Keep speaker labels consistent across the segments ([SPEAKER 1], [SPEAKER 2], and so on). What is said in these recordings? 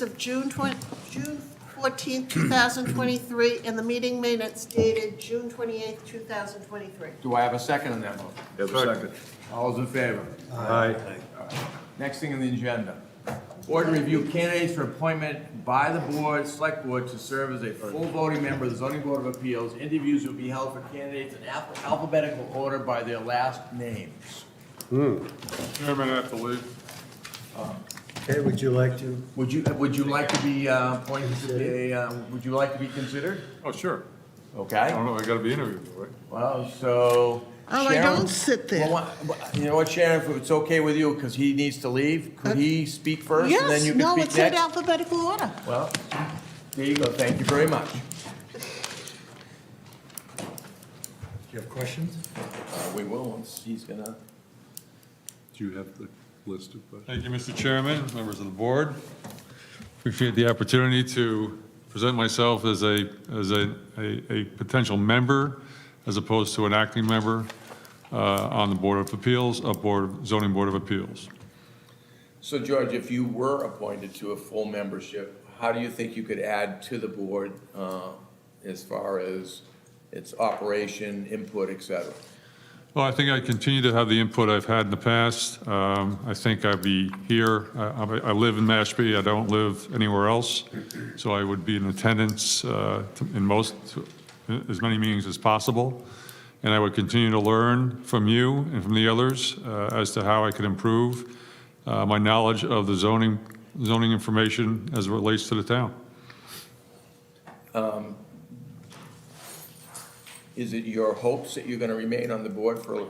[SPEAKER 1] minutes of June 20, June 14, 2023, and the meeting minutes dated June 28, 2023.
[SPEAKER 2] Do I have a second on that motion?
[SPEAKER 3] Have a second.
[SPEAKER 2] All those in favor?
[SPEAKER 3] Aye.
[SPEAKER 2] Next thing on the agenda, board to review candidates for appointment by the board, select board, to serve as a full voting member of the zoning board of appeals. Interviews will be held for candidates in alpha- alphabetical order by their last names.
[SPEAKER 3] Chairman, I believe.
[SPEAKER 4] Okay, would you like to?
[SPEAKER 2] Would you, would you like to be uh, appointed to be, a, uh, would you like to be considered?
[SPEAKER 3] Oh, sure. I
[SPEAKER 2] Okay,
[SPEAKER 3] don't know, I gotta be interviewed, right?
[SPEAKER 2] well, so.
[SPEAKER 5] Oh, I
[SPEAKER 2] Sharon-
[SPEAKER 5] don't sit there.
[SPEAKER 2] Well, what- You know what, Sharon, if it's okay with you, because he needs to leave, could he speak first and then
[SPEAKER 5] Uh, Yes,
[SPEAKER 2] you can
[SPEAKER 5] no,
[SPEAKER 2] speak
[SPEAKER 5] it's
[SPEAKER 2] next?
[SPEAKER 5] in alphabetical order.
[SPEAKER 2] Well, there you go, thank you very much.
[SPEAKER 4] Do you have questions?
[SPEAKER 2] Uh, We will, once he's gonna.
[SPEAKER 6] Do you have the list of
[SPEAKER 3] Thank
[SPEAKER 6] questions?
[SPEAKER 3] you, Mr. Chairman, members of the board. Appreciate the opportunity to present myself as a, as a, a a potential member as opposed to an acting member uh, on the Board of Appeals, a Board, Zoning Board of Appeals.
[SPEAKER 2] So George, if you were appointed to a full membership, how do you think you could add to the board uh, as far as its operation, input, et cetera?
[SPEAKER 3] Well, I think I continue to have the input I've had in the past. Um, I think I'd be here, I- I I live in Mashpee, I don't live anywhere else, so I would be in attendance uh, to- in most, as many meetings as possible, and I would continue to learn from you and from the others uh, as to how I could improve uh, my knowledge of the zoning, zoning information as it relates to the town.
[SPEAKER 2] Is it your hopes that you're gonna remain on the board for an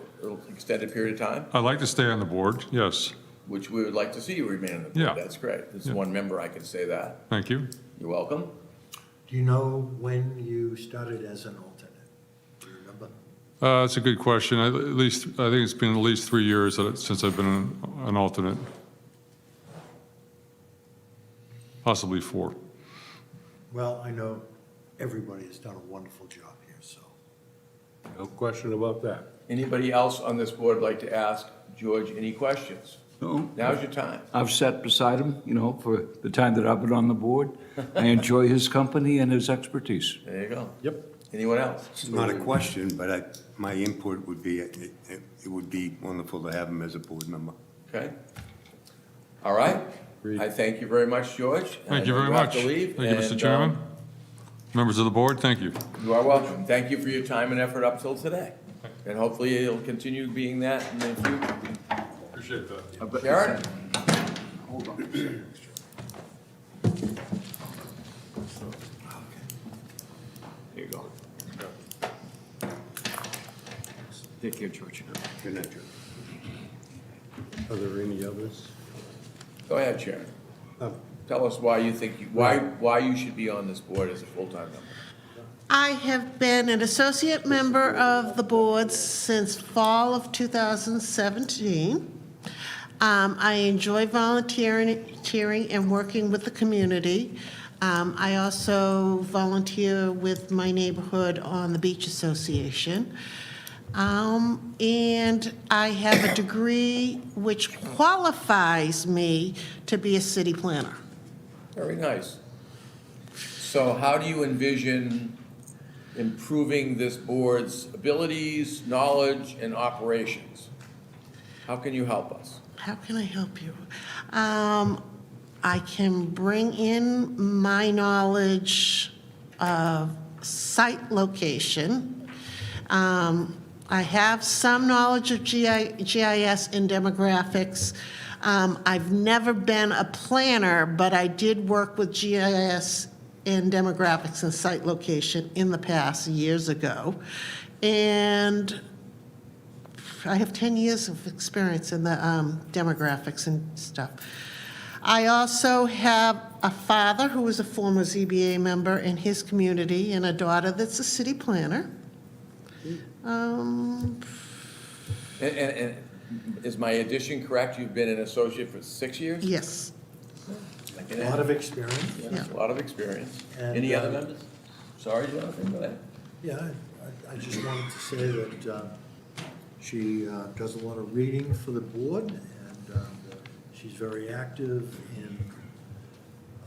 [SPEAKER 2] extended period of time?
[SPEAKER 3] I'd like to stay on the board, yes,
[SPEAKER 2] Which we would like to see you remain on the board.
[SPEAKER 3] Yeah.
[SPEAKER 2] That's great. As
[SPEAKER 3] Yeah.
[SPEAKER 2] one member, I can say that.
[SPEAKER 3] thank you.
[SPEAKER 2] You're welcome.
[SPEAKER 4] Do you know when you started as an alternate? Do you remember?
[SPEAKER 3] Uh, That's a good question. I- At least, I think it's been at least three years that it- since I've been an- an alternate. Possibly four.
[SPEAKER 4] Well, I know everybody has done a wonderful job here, so.
[SPEAKER 6] No question about that.
[SPEAKER 2] Anybody else on this board like to ask George any questions?
[SPEAKER 7] No.
[SPEAKER 2] Now's your time.
[SPEAKER 7] I've sat beside him, you know, for the time that I've been on the board. I enjoy his company and his expertise.
[SPEAKER 2] There you go.
[SPEAKER 6] Yep.
[SPEAKER 2] Anyone else?
[SPEAKER 8] It's not a question, but I, my input would be, it, it it would be wonderful to have him as a board member.
[SPEAKER 2] Okay. All right. I thank you very much, George.
[SPEAKER 3] Thank you very much.
[SPEAKER 2] I know you have to leave.
[SPEAKER 3] Thank you, Mr.
[SPEAKER 2] and,
[SPEAKER 3] Chairman.
[SPEAKER 2] um,
[SPEAKER 3] Members of the board, thank you.
[SPEAKER 2] You are welcome. Thank you for your time and effort up till today. And hopefully it'll continue being that in the future.
[SPEAKER 3] Appreciate that.
[SPEAKER 2] Sharon? There you go.
[SPEAKER 7] Take care, George.
[SPEAKER 8] Good night, Joe.
[SPEAKER 6] Are there any others?
[SPEAKER 2] Go ahead, Sharon.
[SPEAKER 4] Um,
[SPEAKER 2] Tell us why you think, you- why, why you should be on this board as a full-time member.
[SPEAKER 5] I have been an associate member of the board since fall of 2017. Um, I enjoy volunteering volunteering and working with the community. Um, I also volunteer with my neighborhood on the Beach Association. Um, And I have a degree which qualifies me to be a city planner.
[SPEAKER 2] Very nice. So how do you envision improving this board's abilities, knowledge, and operations? How can you help us?
[SPEAKER 5] How can I help you? Um, I can bring in my knowledge of site location. Um, I have some knowledge of GI GIS and demographics. Um, I've never been a planner, but I did work with GIS and demographics and site location in the past, years ago. And I have 10 years of experience in the um, demographics and stuff. I also have a father who is a former ZBA member in his community and a daughter that's a city planner. Um,
[SPEAKER 2] And, and, and is my addition correct? You've been an associate for six years?
[SPEAKER 5] Yes,
[SPEAKER 4] A lot of experience,
[SPEAKER 2] Yeah, A lot of experience.
[SPEAKER 4] And,
[SPEAKER 2] Any other
[SPEAKER 4] uh,
[SPEAKER 2] members? Sorry, Jonathan, go ahead.
[SPEAKER 4] yeah, I- I, I just wanted to say that, uh, she, uh, does a lot of reading for the board, and, um, she's very uh, active in